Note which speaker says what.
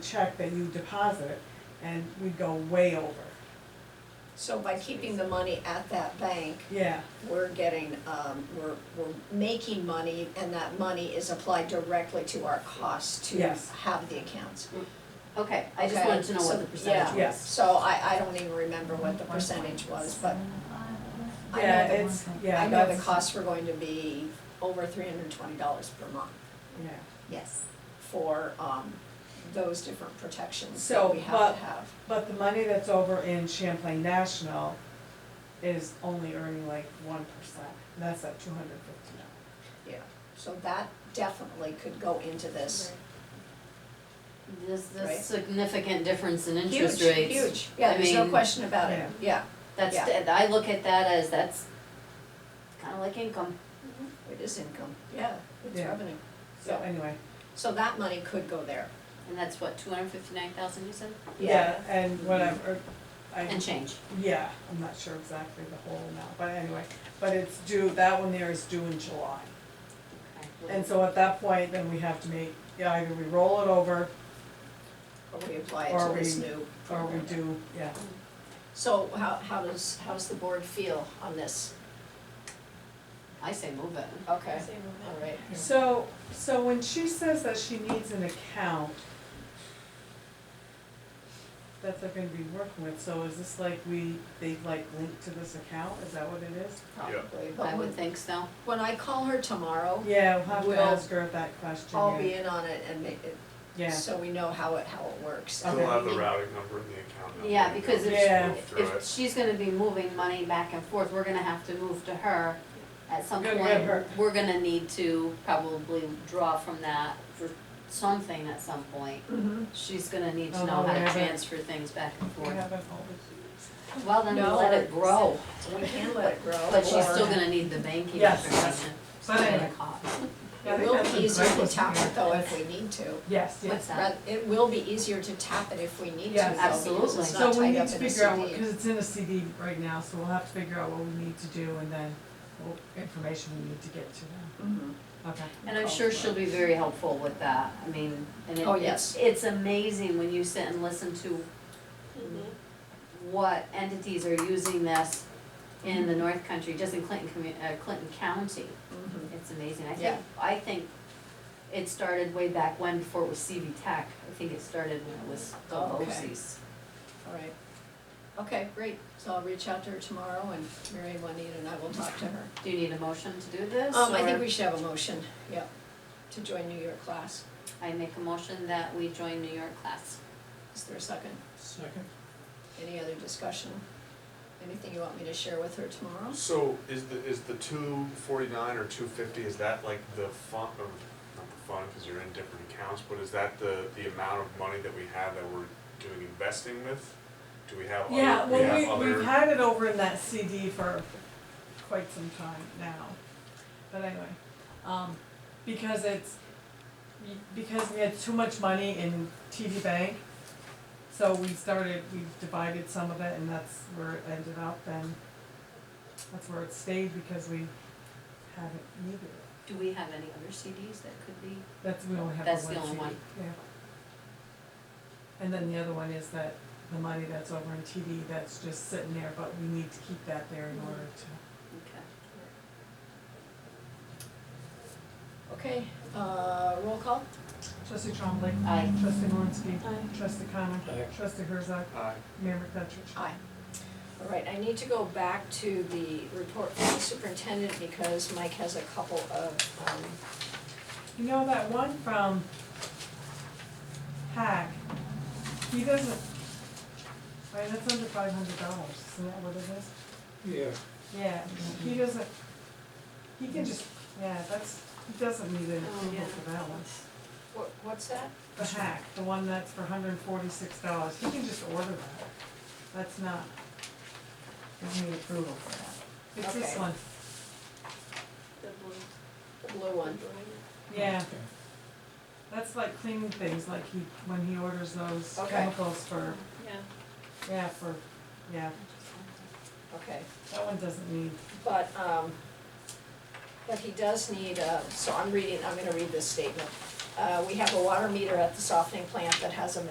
Speaker 1: check that you deposit, and we'd go way over.
Speaker 2: So by keeping the money at that bank,
Speaker 1: Yeah,
Speaker 2: we're getting, um, we're, we're making money and that money is applied directly to our costs to
Speaker 1: Yes.
Speaker 2: have the accounts.
Speaker 3: Okay, I just
Speaker 2: Okay,
Speaker 3: wanted to know
Speaker 2: so-
Speaker 3: what the percentage
Speaker 2: yeah.
Speaker 3: was.
Speaker 1: yes.
Speaker 2: So I, I don't even remember what the percentage was, but I
Speaker 1: Yeah,
Speaker 2: know
Speaker 1: it's,
Speaker 2: the,
Speaker 1: yeah,
Speaker 2: I know the
Speaker 1: that's-
Speaker 2: costs were going to be over three hundred and twenty dollars per month
Speaker 1: Yeah,
Speaker 3: Yes.
Speaker 2: for, um, those different protections
Speaker 1: So,
Speaker 2: that we have
Speaker 1: but-
Speaker 2: to have.
Speaker 1: but the money that's over in Champlain National is only earning like one percent, and that's at two hundred fifty dollars.
Speaker 2: So that definitely could go into this.
Speaker 3: There's
Speaker 2: Right.
Speaker 3: this significant difference in interest
Speaker 2: Huge,
Speaker 3: rates.
Speaker 2: Huge, yeah,
Speaker 3: I
Speaker 2: there's no
Speaker 3: mean-
Speaker 2: question about it, yeah,
Speaker 3: That's,
Speaker 2: Yeah.
Speaker 3: I look at that as, that's kind of like income.
Speaker 2: it is income, yeah, it's
Speaker 1: Yeah.
Speaker 2: revenue.
Speaker 1: So anyway,
Speaker 2: So that money could go there.
Speaker 3: And that's what, two hundred and fifty-nine thousand you said?
Speaker 1: yeah,
Speaker 2: Mm-hmm.
Speaker 1: and whatever, I.
Speaker 3: And change.
Speaker 1: Yeah, I'm not sure exactly the whole amount, but anyway, but it's due, that one there is due in July. And so at that point, then we have to make, yeah, either we roll it over
Speaker 2: Or we apply it
Speaker 1: Or
Speaker 2: to this
Speaker 1: we-
Speaker 2: new
Speaker 1: or we
Speaker 2: program.
Speaker 1: do, yeah.
Speaker 2: So how, how does, how does the board feel on this?
Speaker 3: I say move it.
Speaker 2: Okay, all right.
Speaker 1: So, so when she says that she needs an account that they're gonna be working with, so is this like we, they like link to this account, is that what it is?
Speaker 2: Probably,
Speaker 3: I
Speaker 2: but when,
Speaker 3: would think so.
Speaker 2: when I call her tomorrow,
Speaker 1: Yeah, we'll have to
Speaker 2: Well,
Speaker 1: ask her that question,
Speaker 2: I'll be
Speaker 1: yeah.
Speaker 2: in on it and make it,
Speaker 1: yeah,
Speaker 2: so we know how it, how it works.
Speaker 1: Okay.
Speaker 4: We'll have the routing number and the account number.
Speaker 3: Yeah, because
Speaker 1: if-
Speaker 3: If- If she's gonna be moving money back and forth, we're gonna have to move to her. At some
Speaker 1: Good,
Speaker 3: point,
Speaker 1: good, her.
Speaker 3: we're gonna need to probably draw from that for something at some point.
Speaker 1: Mm-hmm.
Speaker 2: Mhm.
Speaker 3: She's gonna need to
Speaker 1: Oh,
Speaker 3: know how to
Speaker 1: whatever.
Speaker 3: transfer things back and
Speaker 2: Mm-hmm.
Speaker 1: we
Speaker 3: forth.
Speaker 1: haven't always.
Speaker 3: Well, then
Speaker 2: No,
Speaker 3: let it
Speaker 2: but-
Speaker 3: grow,
Speaker 2: We can let it grow.
Speaker 3: but she's
Speaker 2: or-
Speaker 3: still gonna need the banking
Speaker 1: Yes.
Speaker 3: information.
Speaker 1: But anyway, I
Speaker 2: It
Speaker 1: think
Speaker 2: will
Speaker 1: that's a
Speaker 2: be easier to
Speaker 1: great
Speaker 2: tap
Speaker 1: idea.
Speaker 2: it though if we need to.
Speaker 1: Yes, yes.
Speaker 3: What's that?
Speaker 2: But It will be easier to tap it if we need to though,
Speaker 1: Yes.
Speaker 2: because
Speaker 3: Absolutely.
Speaker 2: it's
Speaker 1: So
Speaker 2: not
Speaker 1: we
Speaker 2: tied
Speaker 1: need
Speaker 2: up
Speaker 1: to
Speaker 2: in a CD.
Speaker 1: figure out, because it's in a CD right now, so we'll have to figure out what we need to do and then what information we need to get to them.
Speaker 2: Mhm.
Speaker 1: Okay.
Speaker 3: And I'm sure she'll be very helpful with that, I mean, and it,
Speaker 2: Oh,
Speaker 3: it's,
Speaker 2: yes.
Speaker 3: it's amazing when you sit and listen to what entities are using this in the North Country, just in Clinton commu- uh, Clinton County,
Speaker 2: Mhm.
Speaker 3: it's amazing, I
Speaker 2: Yeah.
Speaker 3: think, I think it started way back when, before it was CV Tech, I think it started when it was
Speaker 2: Oh, okay.
Speaker 3: Delosi's.
Speaker 2: All right. Okay, great. So I'll reach out to her tomorrow and Mary and Juanita and I will talk to her.
Speaker 3: Do you need a motion to do this,
Speaker 2: Um, I think
Speaker 3: or-
Speaker 2: we should have a motion, yeah, to join New York class.
Speaker 3: I make a motion that we join New York class.
Speaker 2: Is there a second?
Speaker 4: Second.
Speaker 2: Any other discussion? Anything you want me to share with her tomorrow?
Speaker 4: So is the, is the two forty-nine or two fifty, is that like the fund, or not the fund, cause you're in different accounts, but is that the, the amount of money that we have that we're doing investing with? Do we have
Speaker 1: Yeah,
Speaker 4: other, we have
Speaker 1: well, we, we've
Speaker 4: other,
Speaker 1: had it over in that CD for quite some time now. But anyway, um, because it's, because we had too much money in TD Bank, so we started, we divided some of it and that's where it ended up and that's where it stayed because we haven't needed it.
Speaker 3: Do we have any other CDs that could be?
Speaker 1: That's, we only have the one
Speaker 3: That's
Speaker 1: CD.
Speaker 3: the only one.
Speaker 1: Yeah. And then the other one is that the money that's over in TD, that's just sitting there, but we need to keep that there in order to.
Speaker 3: Okay.
Speaker 2: Okay, uh, roll call?
Speaker 1: Trustee Trombley.
Speaker 3: Aye.
Speaker 1: Trustee Malinsky. Trustee Connor. Trustee Herzog.
Speaker 4: uh,
Speaker 1: Mayor McFetrich.
Speaker 2: Aye. All right, I need to go back to the report from the superintendent because Mike has a couple of, um,
Speaker 1: You know, that one from Hack, he doesn't, right, that's under five hundred dollars, isn't that what it is?
Speaker 5: Yeah,
Speaker 1: Yeah, he doesn't, he can just, yeah, that's, he doesn't need an
Speaker 2: Oh,
Speaker 1: approval
Speaker 2: yeah.
Speaker 1: for that one.
Speaker 2: what, what's that?
Speaker 1: The hack, the one that's for hundred and forty-six dollars, he can just order that. That's not, doesn't need approval for that. It's this
Speaker 2: Okay.
Speaker 1: one,
Speaker 2: The blue one?
Speaker 1: yeah.
Speaker 5: Okay.
Speaker 1: That's like cleaning things, like he, when he orders those
Speaker 2: Okay.
Speaker 1: chemicals for, yeah, for, yeah,
Speaker 2: Okay.
Speaker 1: that one doesn't need,
Speaker 2: But, um, but he does need, uh, so I'm reading, I'm gonna read this statement. Uh, we have a water meter at the softening plant that has a